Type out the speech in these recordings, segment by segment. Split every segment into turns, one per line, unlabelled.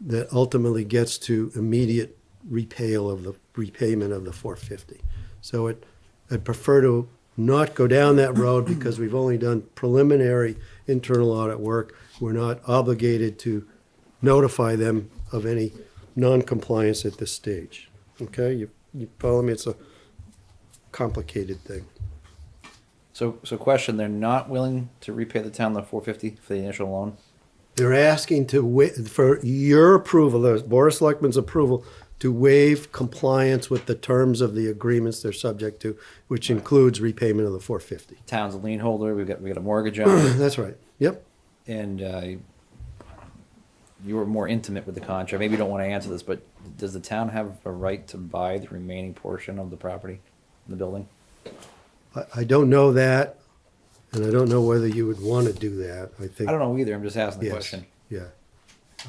that ultimately gets to immediate repayal of the, repayment of the four fifty. So it, I'd prefer to not go down that road because we've only done preliminary internal audit work. We're not obligated to notify them of any non-compliance at this stage. Okay, you, you follow me? It's a complicated thing.
So, so question, they're not willing to repay the town the four fifty for the initial loan?
They're asking to wa, for your approval, the Board of Selectmen's approval, to waive compliance with the terms of the agreements they're subject to, which includes repayment of the four fifty.
Town's a lien holder, we've got, we got a mortgage on it,
That's right. Yep.
and, uh, you were more intimate with the contract, maybe you don't wanna answer this, but does the town have a right to buy the remaining portion of the property, the building?
I, I don't know that, and I don't know whether you would want to do that. I think.
I don't know either, I'm just asking the
Yes,
question.
Yeah.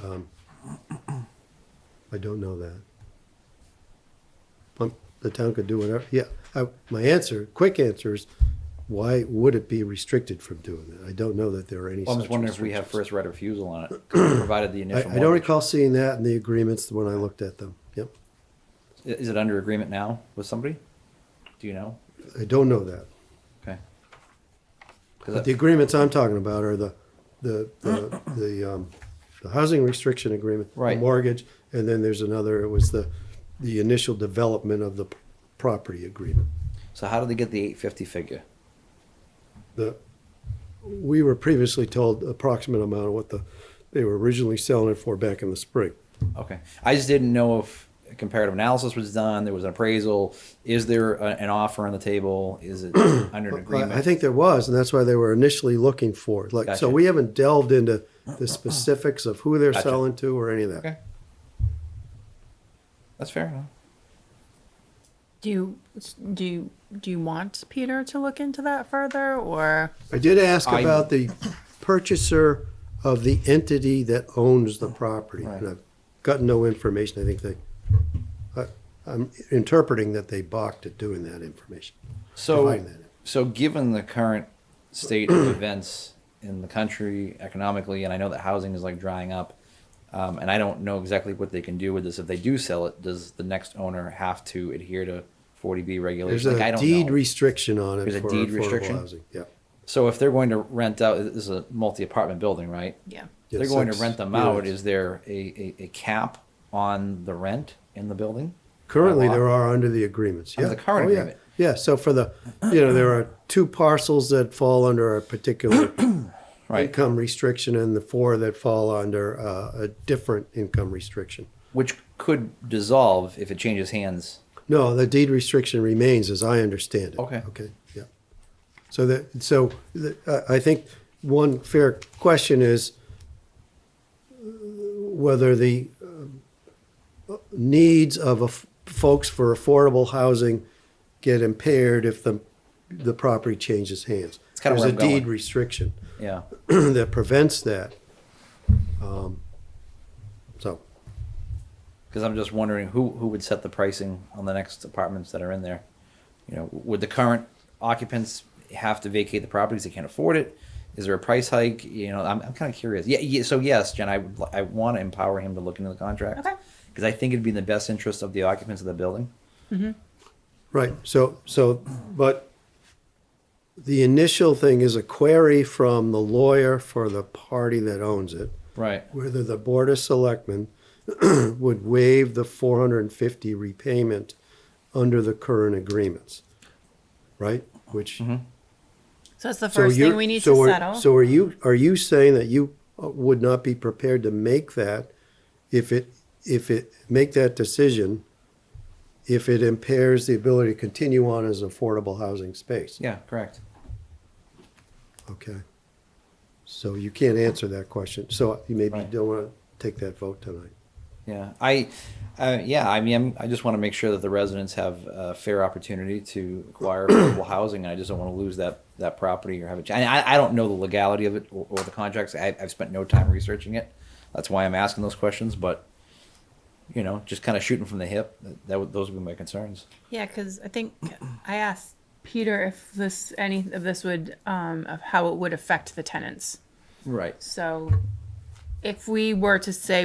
Um, I don't know that. Um, The town could do whatever, yeah. I- My answer, quick answer is, why would it be restricted from doing that? I don't know that there are any
Well, I'm
such
just wondering if we have
restrictions.
first right of refusal on it, provided the initial
I, I don't
mortgage.
recall seeing that in the agreements when I looked at them. Yep.
I- Is it under agreement now with somebody? Do you know?
I don't know that.
Okay. 'Cause
But
that-
the agreements I'm talking about are the, the, the, the, um, the housing restriction agreement. the
Right.
Mortgage, and then there's another, it was the, the initial development of the p- property agreement.
So how did they get the eight fifty figure?
The, we were previously told approximate amount of what the, they were originally selling it for back in the spring.
Okay, I just didn't know if a comparative analysis was done, there was an appraisal, is there a- an offer on the table, is it under an
Well, I
agreement?
think there was, and that's why they were initially looking for, it. like,
Gotcha.
so we haven't delved into the specifics of who they're
Gotcha.
selling to or any of that.
Okay. That's fair enough.
Do you do you, do you want Peter to look into that further, or
I did ask
I-
about the purchaser of the entity that owns the property. And
Right.
I've gotten no information. I think they, I, I'm interpreting that they balked at doing that information.
So,
Define that.
so given the current state of events in the country economically, and I know that housing is like drying up, um, and I don't know exactly what they can do with this. If they do sell it, does the next owner have to adhere to forty B regulations?
There's
Like, I
a
don't
deed
know.
restriction on it
There's a
for
deed
affordable
restriction?
housing. Yeah.
So if they're going to rent out, this is a multi-apartment building, right?
yeah?
Yeah,
they're going to
six
rent them out,
units.
is there a, a, a cap on the rent in the building?
Currently,
by law?
there are under the agreements.
Under
yeah.
the current
Oh, yeah.
agreement.
Yeah, so for the, you know, there are two parcels that fall under a particular
Right,
income restriction and the four that fall under uh, a different income restriction.
which could dissolve if it changes hands.
No, the deed restriction remains, as I understand it.
Okay.
Okay, yeah. So that, so the- I I think one fair question is uh, whether the um, needs of af- folks for affordable housing get impaired if the, the property changes hands.
It's kinda where I'm
There's a deed
going.
restriction
Yeah,
that prevents that. Um, So,
because I'm just wondering who, who would set the pricing on the next apartments that are in there? You know, would the current occupants have to vacate the properties, they can't afford it? Is there a price hike? You know, I'm, I'm kind of curious. Yeah, yeah, so yes, Jen, I, would li- I want to empower him to look into the contract.
Okay.
Because I think it'd be in the best interest of the occupants of the building.
Right, so, so, but the initial thing is a query from the lawyer for the party that owns it,
Right.
whether the Board of Selectmen would waive the four hundred and fifty repayment under the current agreements, right? Which,
So that's the
so
first
you're,
thing we need
so
to
are,
settle.
so are you, are you saying that you uh, would not be prepared to make that if it, if it, make that decision if it impairs the ability to continue on as affordable housing space?
Yeah, correct.
Okay. So you can't answer that question. So you maybe
Right.
don't want to take that vote tonight.
Yeah, I, uh, yeah, I mean, I'm, I just want to make sure that the residents have a fair opportunity to acquire affordable housing, and I just don't want to lose that that property or have it. And I, I don't know the legality of it or, or the contracts. I, I've spent no time researching it. That's why I'm asking those questions. But you know, just kind of shooting from the hip. That, that would, those would be my concerns.
yeah, because I think I asked Peter if this any of this would um of how it would affect the tenants.
Right.
So if we were to say